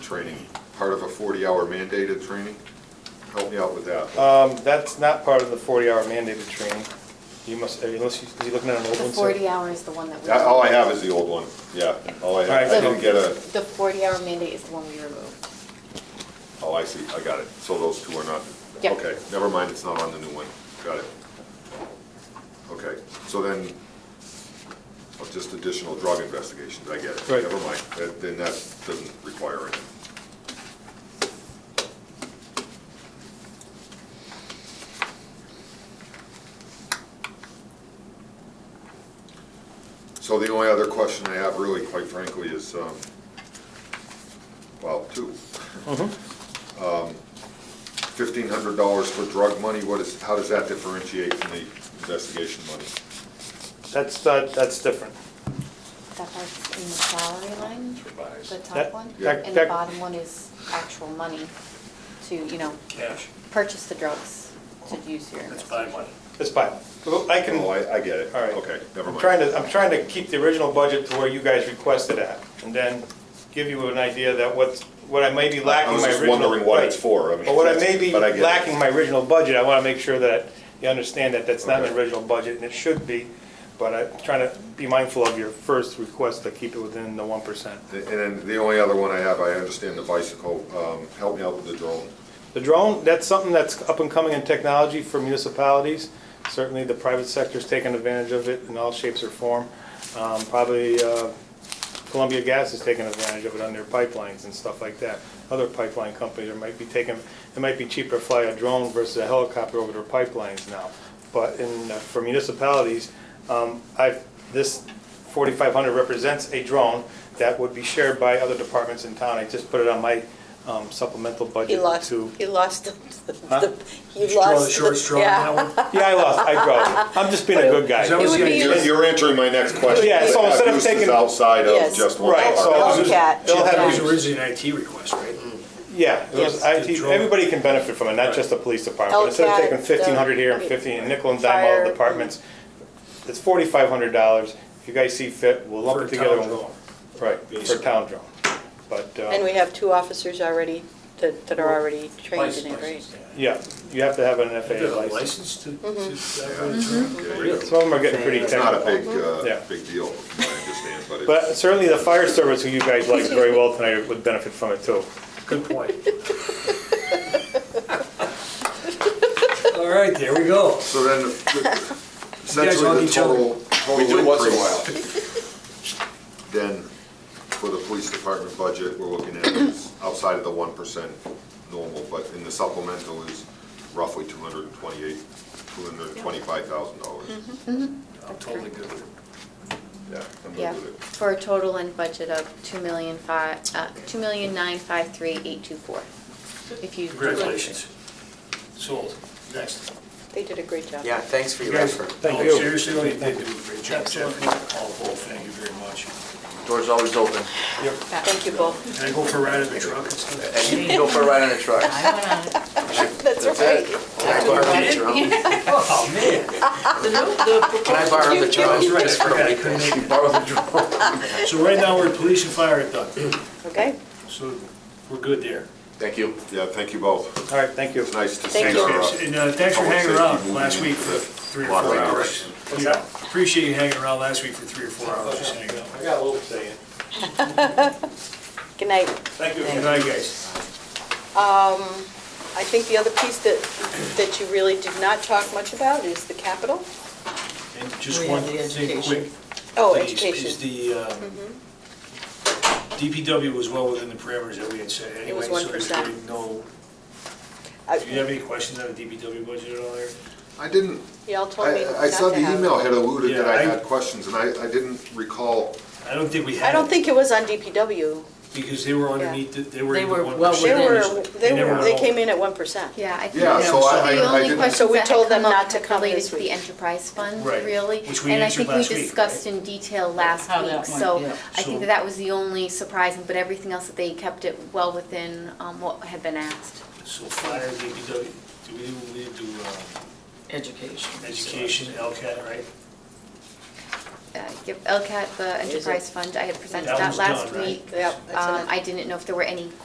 training, part of a 40-hour mandated training? Help me out with that. Um, that's not part of the forty-hour mandated training. You must, unless, you- is he looking at an old The one? sir? forty hour is the one that we. That- All I have is the old one, yeah. All I have, I Alright, so- didn't get a, The forty hour mandate is the one we removed. oh, I see, I got it. So those two are not, Yeah. okay, never mind, it's not on the new one. Got it. Okay, so then, oh, just additional drug investigations, I get it. Right. Never mind, That- then that doesn't require it. So the only other question I have really, quite frankly, is, um, well, two. Um, Fifteen hundred dollars for drug money, what is, how does that differentiate from the investigation money? That's, that, that's different. That part's in the salary line, the top That- one, Yeah. and the that- bottom one is actual money to, you know, Cash, purchase the drugs to use your. that's buy money. It's fine. Well, I can, Oh, all I, I get it. right. Okay, never I'm mind. trying to, I'm trying to keep the original budget to where you guys requested at, and then give you an idea that what's, what I may be lacking I was my original. just wondering what it's Right. for. I mean, But what I may be but I get it. lacking my original budget, I want to make sure that you understand that that's not an Okay. original budget, and it should be, but I'm trying to be mindful of your first request to keep it within the one percent. And then the only other one I have, I understand the bicycle, um, help me out with the drone. The drone, that's something that's up and coming in technology for municipalities. Certainly, the private sector's taking advantage of it in all shapes or form. Um, Probably uh, Columbia Gas is taking advantage of it on their pipelines and stuff like that. Other pipeline companies are might be taking, it might be cheaper to fly a drone versus a helicopter over their pipelines now. But in, uh, for municipalities, um, I've, this 4,500 represents a drone that would be shared by other departments in town. I just put it on my um, supplemental budget He lost, to. he lost, the- Huh? the- he Did you draw the lost. short the- straw on yeah. that one? Yeah, I lost. I dropped it. I'm just being a good guy. Is that what It was would the be idea? You're, you're answering my next question. Yeah, so They have instead of uses taking- Outside of Yes. just one. Right, so apartment. I'll just- Hellcat. it'll That have- Mm-hmm. was originally an IT request, right? yeah, it was Yes. IT. Everybody can benefit from it, not just the police department. But instead of LCAT, taking fifteen hundred here and the- fifteen and nickel and dime all Fire. the departments, it's forty five hundred dollars. If you guys see fit, we'll lump For it a together. town and- drone. Right for Basically. town drone, but uh, And we have two officers already, that, that are already trained in it, right? License, yeah. yeah, you have to have an Do you FAA have a license. License to, Mm-hmm. to operate a drone? Yeah, Really? Some of them are getting pretty It's technical. not a big, Yeah. uh, big deal, I understand, but it's. but certainly the fire service, who you guys like very well tonight, would benefit from it too. Good point. All right, there we go. So then, the- hug essentially the each other. total, We total do once in a increase then for the police department budget, we're looking at is outside of the one percent normal, but in the supplemental is roughly two hundred and twenty-eight, two hundred and twenty-five thousand dollars. Mm-hmm. I'm totally good with it. Yeah, I'm Yeah, good with it. for a total end budget of two million five, uh, two million nine five three eight two four. If you. Congratulations. Sold. Next. They did a great job. Yeah, thanks for your Guys, effort. Thank No, you. Seriously, you did do a great job, Jeff. All the whole, thank you very much. Door's always open. Thank you both. Can I go for a ride in the truck and stuff? And you can go for a ride on the truck. That's right. Can I borrow the drone? Oh, man. Can I borrow the drone? That's right, I forgot I couldn't make Borrow the drone. it. So right now, we're police and fire at Doug. Okay, So we're good there. Thank you. Yeah, thank you both. All right, thank you. It's nice to see Thank our, you. uh, And uh, thanks for public hanging safety around moving last week into for the three or proper four hours. direction. Yeah, Appreciate you hanging around last week for three or four hours. just hanging out. I got a little say in. good night. Thank you. Good night, guys. I think the other piece that, that you really did not talk much about is the capital. And just We one have the thing education. quick. Oh, is- Is education. Mm-hmm. the, um, DPW was well within the parameters that we had set anyway. was So there's 1%. really no, do you I- have any questions on the DPW budget at all there? I didn't, Y'all told me not to I, I saw the have it. email had alluded that I Yeah, I- had questions, and I, I didn't recall I don't think we had. I don't it, think it was on DPW. Because they were underneath, the- they were They in were the one well They percent. were, they never were, they know. came in at 1%. Yeah, I think. Yeah, that's so I- I- I The only didn't- question So we that had told them come up not to had come related this to the week. enterprise fund, Right, really. which we answered And I last think we week, discussed in detail last How that week, went, so yeah. I think So- that that was the only surprising, but everything else that they kept it well within um, what had been asked. So fire, DPW, do we, we do um, Education. education, LCAT, right? Uh, Give LCAT, the it- enterprise fund, I had presented That that was last done, right? week. Yep, that's in Um, it. I didn't know if there were any